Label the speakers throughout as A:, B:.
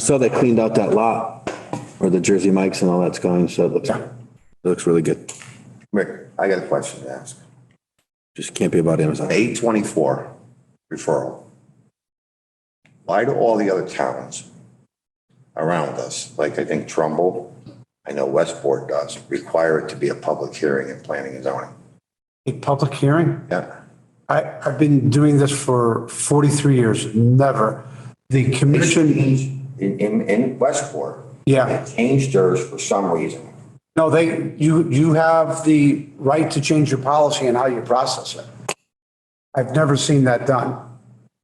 A: So they cleaned out that lot where the Jersey Mike's and all that's going, so it looks,
B: Yeah.
A: it looks really good.
B: Rick, I got a question to ask.
A: Just can't be about Amazon.
B: Eight twenty-four referral. Why do all the other towns around us, like I think Trumbull, I know Westport does, require it to be a public hearing in planning and zoning?
C: A public hearing?
B: Yeah,
C: I, I've been doing this for 43 years, never. The
B: They
C: commission,
B: changed in, in, in Westport,
C: yeah,
B: they changed theirs for some reason.
C: no, they, you, you have the right to change your policy and how you process it. I've never seen that done.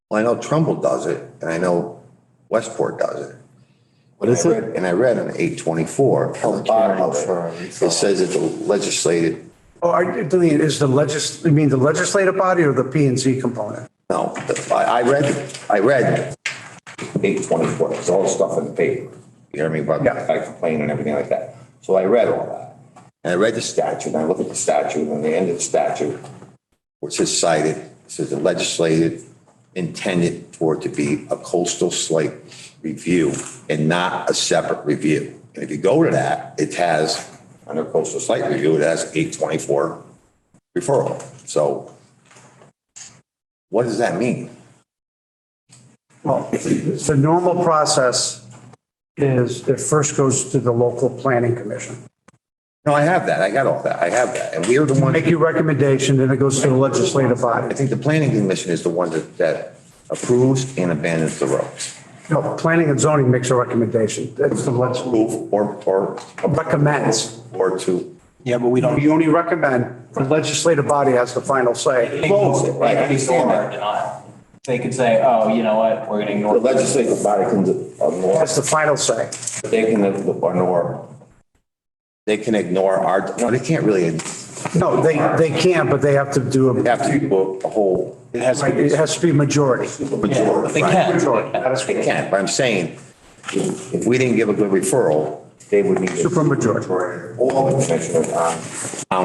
B: Well, I know Trumbull does it, and I know Westport does it.
A: What is
B: I
A: it?
B: read- And I read on eight twenty-four, on the bottom of it, it says that the legislated,
C: Oh, are, you- Delia, is the legis, you mean the legislative body or the P and Z component?
B: no, the- I, I read, I read eight twenty-four, it's all the stuff in the paper. You hear me about,
C: Yeah.
B: I complain and everything like that. So I read all that. And I read the statute, and I look at the statute, and the end of the statute, which is cited, it says the legislated intended for it to be a coastal slate review and not a separate review. And if you go to that, it has, under coastal slate review, it has eight twenty-four referral. So what does that mean?
C: Well, the normal process is it first goes to the local planning commission.
B: No, I have that. I got all that. I have that. And we are the one,
C: Make your recommendation, then it goes to the legislative
B: I
C: body.
B: think the planning commission is the one that, that approves and abandons the roads.
C: No, planning and zoning makes a recommendation. That's the legislative.
B: Approve or, or,
C: recommends.
B: or to.
D: Yeah, but we don't.
C: We only recommend, the legislative body has the final say.
B: Right, I understand that.
D: denial. They could say, oh, you know what, we're gonna ignore.
B: The legislative body can ignore,
C: Has the final say.
B: they can ignore, they can ignore our, no, they can't really,
C: No, they, they can, but they have to do
B: they
C: a,
B: have to do a whole
D: It has to
C: like, it
D: be.
C: has to be majority.
B: majority.
D: They
B: right?
D: can.
B: They can, but I'm saying, if if we didn't give a good referral, they would need. to-
C: Supermajority.
B: All the commissioners on,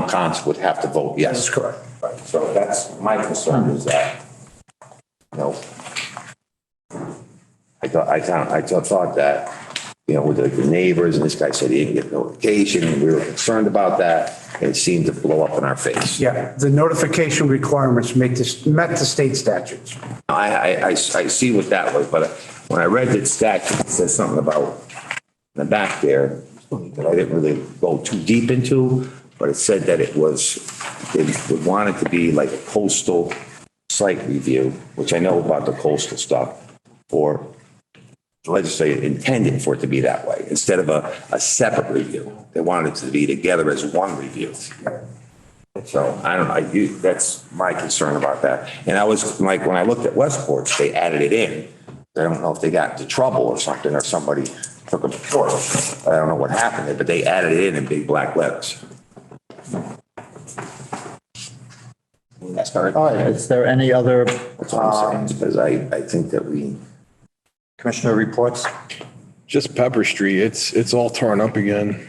B: town council would have to vote yes.
C: That's correct.
B: Right, so that's my concern is that, you know, I thought, I thought, I thought- thought that, you know, with the neighbors and this guy said he didn't get notification and we were concerned about that. It seemed to blow up in our face.
C: Yeah, the notification requirements make this, met the state statutes.
B: I, I, I, I see what that was, but when I read that statute, it says something about in the back there that I didn't really go too deep into, but it said that it was, they would want it to be like a coastal site review, which I know about the coastal stuff, or the legislature intended for it to be that way, instead of a, a separate review. They wanted it to be together as one review. So I don't know, you, that's my concern about that. And I was, like, when I looked at Westport's, they added it in. I don't know if they got into trouble or something, or somebody took them to court. I don't know what happened there, but they added it in in big black letters. That's not,
E: All right, is there any other
B: that's what I'm saying, because I, I think that we,
E: commissioner reports?
F: Just Pepper Street, it's, it's all torn up again.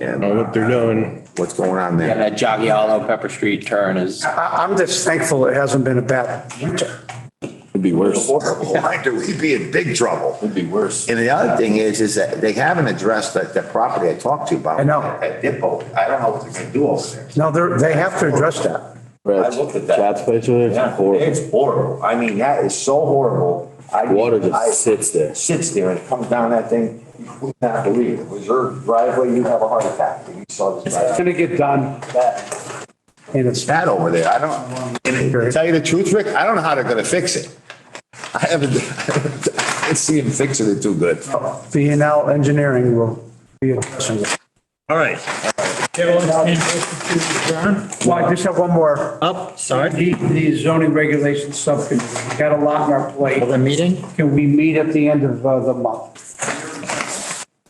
B: yeah,
F: I don't know what they're doing.
B: what's going on
D: Yeah,
B: there?
D: that Jagialo Pepper Street turn is.
C: I, I'm just thankful it hasn't been a bad winter.
A: It'd be worse.
B: Horrible, Why do we be in big trouble?
A: It'd be worse.
B: And the other thing is, is that they haven't addressed that, that property I talked to you about.
C: I know.
B: That depot, I don't know what they're gonna do over there.
C: No, they're, they have to address that.
B: I looked at that.
A: Chad's place over there,
B: Yeah,
A: it's horrible.
B: It's horrible. I mean, that is so horrible. I-
A: Water
B: I-
A: just sits there.
B: Sits there and it comes down that thing. You would not believe it. Was your driveway, you'd have a heart attack if you saw this
C: It's
B: driveway.
C: gonna get done
B: That-
C: and it's,
B: That over there, I don't, and to tell you the truth, Rick, I don't know how they're gonna fix it. I haven't, I didn't see them fixing it too good.
C: B and L engineering will be addressing it.
E: All right,
C: Well, I just have one more.
E: up, sorry,
C: The the zoning regulations subcommittee, we got a lot on our plate.
E: the meeting?
C: Can we meet at the end of uh, the month?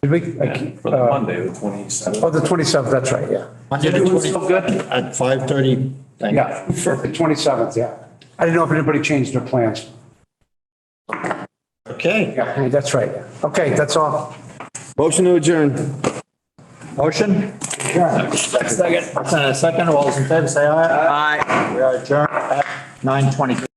C: Did we? I keep- uh,
D: Monday, the twenty-seventh.
C: Oh, the 27th, that's right, yeah.
E: Monday the
D: You're doing
E: 20
D: so good.
E: At 5:30. Thank you.
C: Yeah, for the 27th, yeah. I didn't know if anybody changed their plans.
E: Okay,
C: Yeah, that's right. Okay, that's all.
A: Motion to adjourn.
E: motion? Second. Uh, Second, all those in favor, say aye. Aye. We are adjourned at 9:20.